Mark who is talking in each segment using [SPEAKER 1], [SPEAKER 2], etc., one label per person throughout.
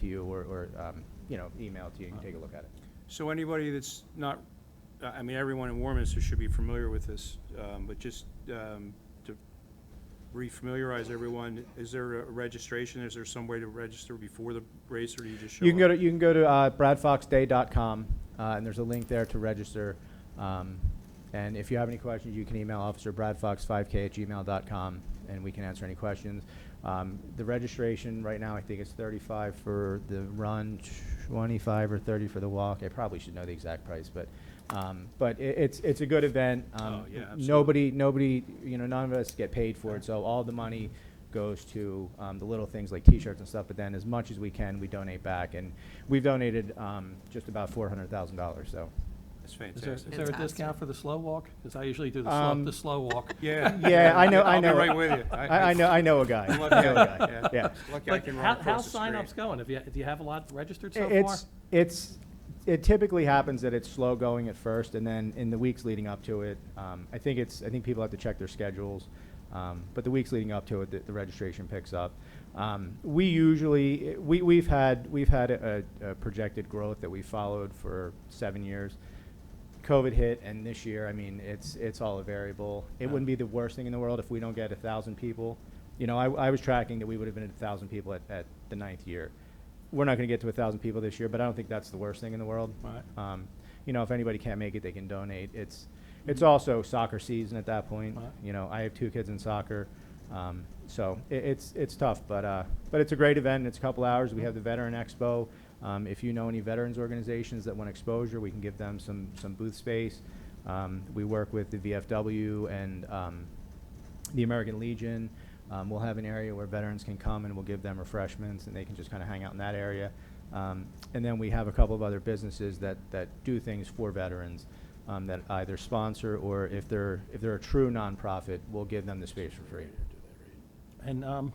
[SPEAKER 1] to you or, or, um, you know, email to you, you can take a look at it.
[SPEAKER 2] So anybody that's not, I I mean, everyone in Warminster should be familiar with this, um, but just um, to re-familiarize everyone, is there a registration? Is there some way to register before the race, or do you just show up?
[SPEAKER 1] You can go to, you can go to uh, bradfoxday.com, uh, and there's a link there to register. Um, and if you have any questions, you can email Officer Bradfox5k at gmail.com, and we can answer any questions. Um, the registration right now, I think it's 35 for the run, 25 or 30 for the walk. I probably should know the exact price, but um, but it, it's it's a good event. Um,
[SPEAKER 2] Oh, yeah, absolutely.
[SPEAKER 1] nobody nobody you know none of us get paid for it, so all the money goes to um, the little things like T-shirts and stuff. But then, as much as we can, we donate back, and we've donated um, just about four hundred thousand dollars. So,
[SPEAKER 2] That's
[SPEAKER 3] Is there,
[SPEAKER 2] fantastic.
[SPEAKER 3] is there a discount
[SPEAKER 4] Fantastic.
[SPEAKER 3] for the slow walk? Because I usually do the slow,
[SPEAKER 1] Um,
[SPEAKER 3] the slow walk.
[SPEAKER 2] Yeah.
[SPEAKER 1] yeah, I know, I
[SPEAKER 2] I'll be
[SPEAKER 1] know,
[SPEAKER 2] right with you.
[SPEAKER 1] I, I know, I know a guy.
[SPEAKER 2] I'm lucky
[SPEAKER 1] I know a
[SPEAKER 2] I- yeah.
[SPEAKER 1] guy. Yeah,
[SPEAKER 2] Lucky I
[SPEAKER 3] But
[SPEAKER 2] can
[SPEAKER 3] how,
[SPEAKER 2] run
[SPEAKER 3] how
[SPEAKER 2] across the street.
[SPEAKER 3] signups going? Have you, do you have a lot registered so far?
[SPEAKER 1] it's it's it typically happens that it's slow going at first, and then in the weeks leading up to it, um, I think it's I think people have to check their schedules. Um, but the weeks leading up to it, the, the registration picks up. Um, we usually we we've had we've had a, a projected growth that we followed for seven years. COVID hit, and this year, I mean, it's it's all a variable. It
[SPEAKER 3] Yeah.
[SPEAKER 1] wouldn't be the worst thing in the world if we don't get a thousand people. You know, I, I was tracking that we would have been at a thousand people at, at the ninth year. We're not going to get to a thousand people this year, but I don't think that's the worst thing in the world.
[SPEAKER 3] Right.
[SPEAKER 1] Um, you know, if anybody can't make it, they can donate. It's
[SPEAKER 3] Mm-hmm.
[SPEAKER 1] it's also soccer season at that point.
[SPEAKER 3] Right.
[SPEAKER 1] You know, I have two kids in soccer, um, so it, it's it's tough, but uh, but it's a great event. It's a couple hours. We have the Veteran Expo. Um, if you know any veterans organizations that want exposure, we can give them some some booth space. Um, we work with the VFW and um, the American Legion. Um, we'll have an area where veterans can come and we'll give them refreshments and they can just kind of hang out in that area. Um, and then we have a couple of other businesses that, that do things for veterans um, that either sponsor or if they're, if they're a true nonprofit, we'll give them the space for free.
[SPEAKER 3] And um,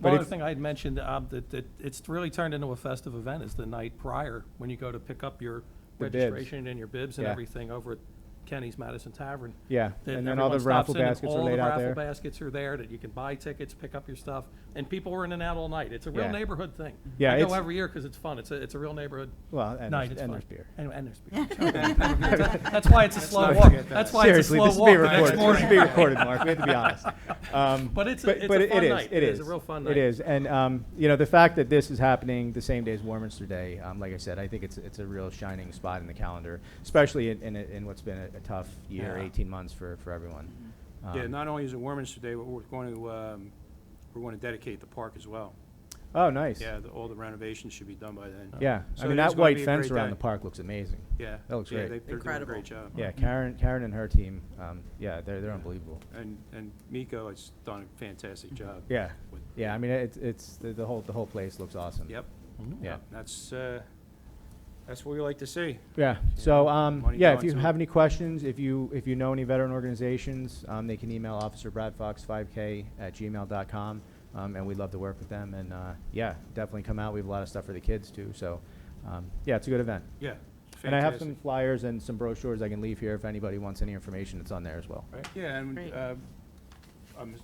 [SPEAKER 1] But
[SPEAKER 3] one other
[SPEAKER 1] if-
[SPEAKER 3] thing I had mentioned, um, that, that it's really turned into a festive event is the night prior, when you go to pick up your
[SPEAKER 1] The bibs.
[SPEAKER 3] registration and your bibs and
[SPEAKER 1] Yeah.
[SPEAKER 3] everything over at Kenny's Madison Tavern.
[SPEAKER 1] Yeah,
[SPEAKER 3] that
[SPEAKER 1] and then all the
[SPEAKER 3] everyone
[SPEAKER 1] raffle
[SPEAKER 3] stops in and
[SPEAKER 1] baskets are laid out
[SPEAKER 3] All the
[SPEAKER 1] there.
[SPEAKER 3] raffle baskets are there, that you can buy tickets, pick up your stuff, and people are in and out all night. It's a real
[SPEAKER 1] Yeah.
[SPEAKER 3] neighborhood thing.
[SPEAKER 1] Yeah,
[SPEAKER 3] I go
[SPEAKER 1] it's-
[SPEAKER 3] every year because it's fun. It's a, it's a real neighborhood
[SPEAKER 1] Well, and,
[SPEAKER 3] night.
[SPEAKER 1] there's,
[SPEAKER 3] It's
[SPEAKER 1] and
[SPEAKER 3] fun.
[SPEAKER 1] there's beer.
[SPEAKER 3] And, and there's beer. That's why it's a slow
[SPEAKER 2] not
[SPEAKER 3] walk.
[SPEAKER 2] forget that.
[SPEAKER 3] That's why it's a
[SPEAKER 1] Seriously,
[SPEAKER 3] slow
[SPEAKER 1] this is being
[SPEAKER 3] walk the next
[SPEAKER 1] recorded. This is
[SPEAKER 3] morning.
[SPEAKER 1] being recorded, Mark. We have to be honest. Um,
[SPEAKER 3] But it's a- it's a
[SPEAKER 1] but it-
[SPEAKER 3] fun
[SPEAKER 1] it is,
[SPEAKER 3] night.
[SPEAKER 1] It
[SPEAKER 3] It is
[SPEAKER 1] is
[SPEAKER 3] a real fun
[SPEAKER 1] It
[SPEAKER 3] night.
[SPEAKER 1] is, and um, you know the fact that this is happening the same day as Warminster Day. Um, like I said, I think it's it's a real shining spot in the calendar, especially in in, a, in what's been a, a tough year,
[SPEAKER 3] Yeah.
[SPEAKER 1] eighteen months for for everyone. Um,
[SPEAKER 2] Yeah, not only is it Warminster Day, but we're going to, um, we're going to dedicate the park as well.
[SPEAKER 1] oh, nice.
[SPEAKER 2] Yeah, the- all the renovations should be done by then.
[SPEAKER 1] Yeah.
[SPEAKER 2] So
[SPEAKER 1] I
[SPEAKER 2] it
[SPEAKER 1] mean
[SPEAKER 2] is
[SPEAKER 1] that
[SPEAKER 2] gonna
[SPEAKER 1] white
[SPEAKER 2] be a
[SPEAKER 1] fence
[SPEAKER 2] great
[SPEAKER 1] around
[SPEAKER 2] day.
[SPEAKER 1] the park looks amazing.
[SPEAKER 2] Yeah.
[SPEAKER 1] That looks
[SPEAKER 2] yeah,
[SPEAKER 1] great.
[SPEAKER 2] they- They're doing a
[SPEAKER 4] Incredible.
[SPEAKER 2] great job.
[SPEAKER 1] Yeah, Karen, Karen and her team. Um, yeah, they're they're unbelievable. Mm-hmm.
[SPEAKER 2] And, and Miko has done a fantastic job.
[SPEAKER 1] Yeah,
[SPEAKER 2] with-
[SPEAKER 1] yeah. I mean it's it's the, the whole the whole place looks awesome.
[SPEAKER 2] Yep,
[SPEAKER 1] Yeah.
[SPEAKER 2] that's, uh, that's what we like to see.
[SPEAKER 1] Yeah, so, um,
[SPEAKER 2] Money
[SPEAKER 1] yeah, if
[SPEAKER 2] going
[SPEAKER 1] you
[SPEAKER 2] to-
[SPEAKER 1] have any questions, if you, if you know any veteran organizations, um, they can email Officer Bradfox five K at gmail.com. Um, and we'd love to work with them and, uh, yeah, definitely come out. We have a lot of stuff for the kids too, so, um, yeah, it's a good event.
[SPEAKER 2] Yeah.
[SPEAKER 1] And I have
[SPEAKER 2] fantastic.
[SPEAKER 1] some flyers and some brochures I can leave here if anybody wants any information, it's on there as well.
[SPEAKER 2] Right, yeah, and,
[SPEAKER 4] Great.
[SPEAKER 2] uh, um,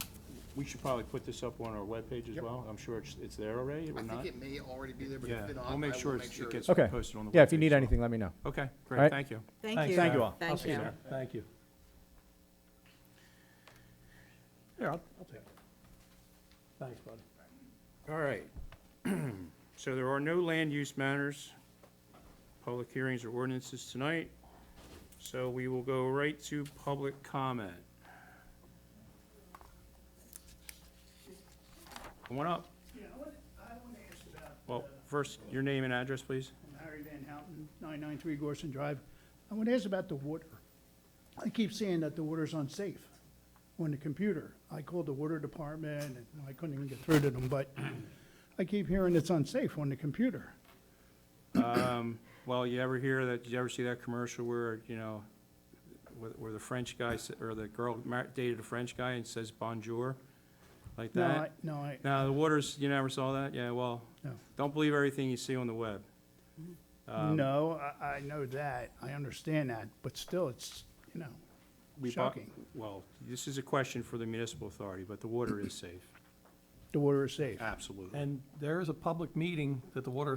[SPEAKER 2] we should probably put this up on our webpage as
[SPEAKER 5] Yep.
[SPEAKER 2] well. I'm sure it's, it's there already or
[SPEAKER 5] I
[SPEAKER 2] not.
[SPEAKER 5] think it may already be there, but
[SPEAKER 2] Yeah,
[SPEAKER 5] if not, I
[SPEAKER 2] we'll
[SPEAKER 5] will
[SPEAKER 2] make
[SPEAKER 5] make
[SPEAKER 2] sure
[SPEAKER 5] sure
[SPEAKER 2] it's- it
[SPEAKER 5] it's
[SPEAKER 2] gets
[SPEAKER 1] Okay,
[SPEAKER 2] posted on the
[SPEAKER 1] yeah, if you
[SPEAKER 2] webpage
[SPEAKER 1] need
[SPEAKER 2] as well.
[SPEAKER 1] anything, let me know.
[SPEAKER 2] Okay,
[SPEAKER 1] Right.
[SPEAKER 2] great, thank you.
[SPEAKER 4] Thank
[SPEAKER 3] Thanks,
[SPEAKER 4] you.
[SPEAKER 1] Thank you all.
[SPEAKER 3] I'll
[SPEAKER 4] Thank
[SPEAKER 3] see you
[SPEAKER 4] you.
[SPEAKER 3] there. Thank you. Here, I'll, I'll take it. Thanks, buddy.
[SPEAKER 2] All right. So there are no land use matters, public hearings or ordinances tonight. So we will go right to public comment. Come on up.
[SPEAKER 6] Yeah, I want, I want to ask about
[SPEAKER 2] Well, first, your name and address, please.
[SPEAKER 6] I'm Harry Van Houten, 993 Gorson Drive. I want to ask about the water. I keep saying that the water's unsafe on the computer. I called the water department, and I couldn't even get through to them, but I keep hearing it's unsafe on the computer.
[SPEAKER 2] Um, well, you ever hear that, you ever see that commercial where, you know, where, where the French guy, s- or the girl mar- dated a French guy and says bonjour, like
[SPEAKER 6] No, I-
[SPEAKER 2] that?
[SPEAKER 6] no, I,
[SPEAKER 2] No, the waters, you never saw that? Yeah, well,
[SPEAKER 6] No.
[SPEAKER 2] don't believe everything you see on the web. Um,
[SPEAKER 6] no, I, I know that. I understand that, but still, it's, you know,
[SPEAKER 2] we bu-
[SPEAKER 6] shocking.
[SPEAKER 2] Well, this is a question for the municipal authority, but the water is safe,
[SPEAKER 6] The water is safe.
[SPEAKER 2] absolutely.
[SPEAKER 3] And there is a public meeting that the Water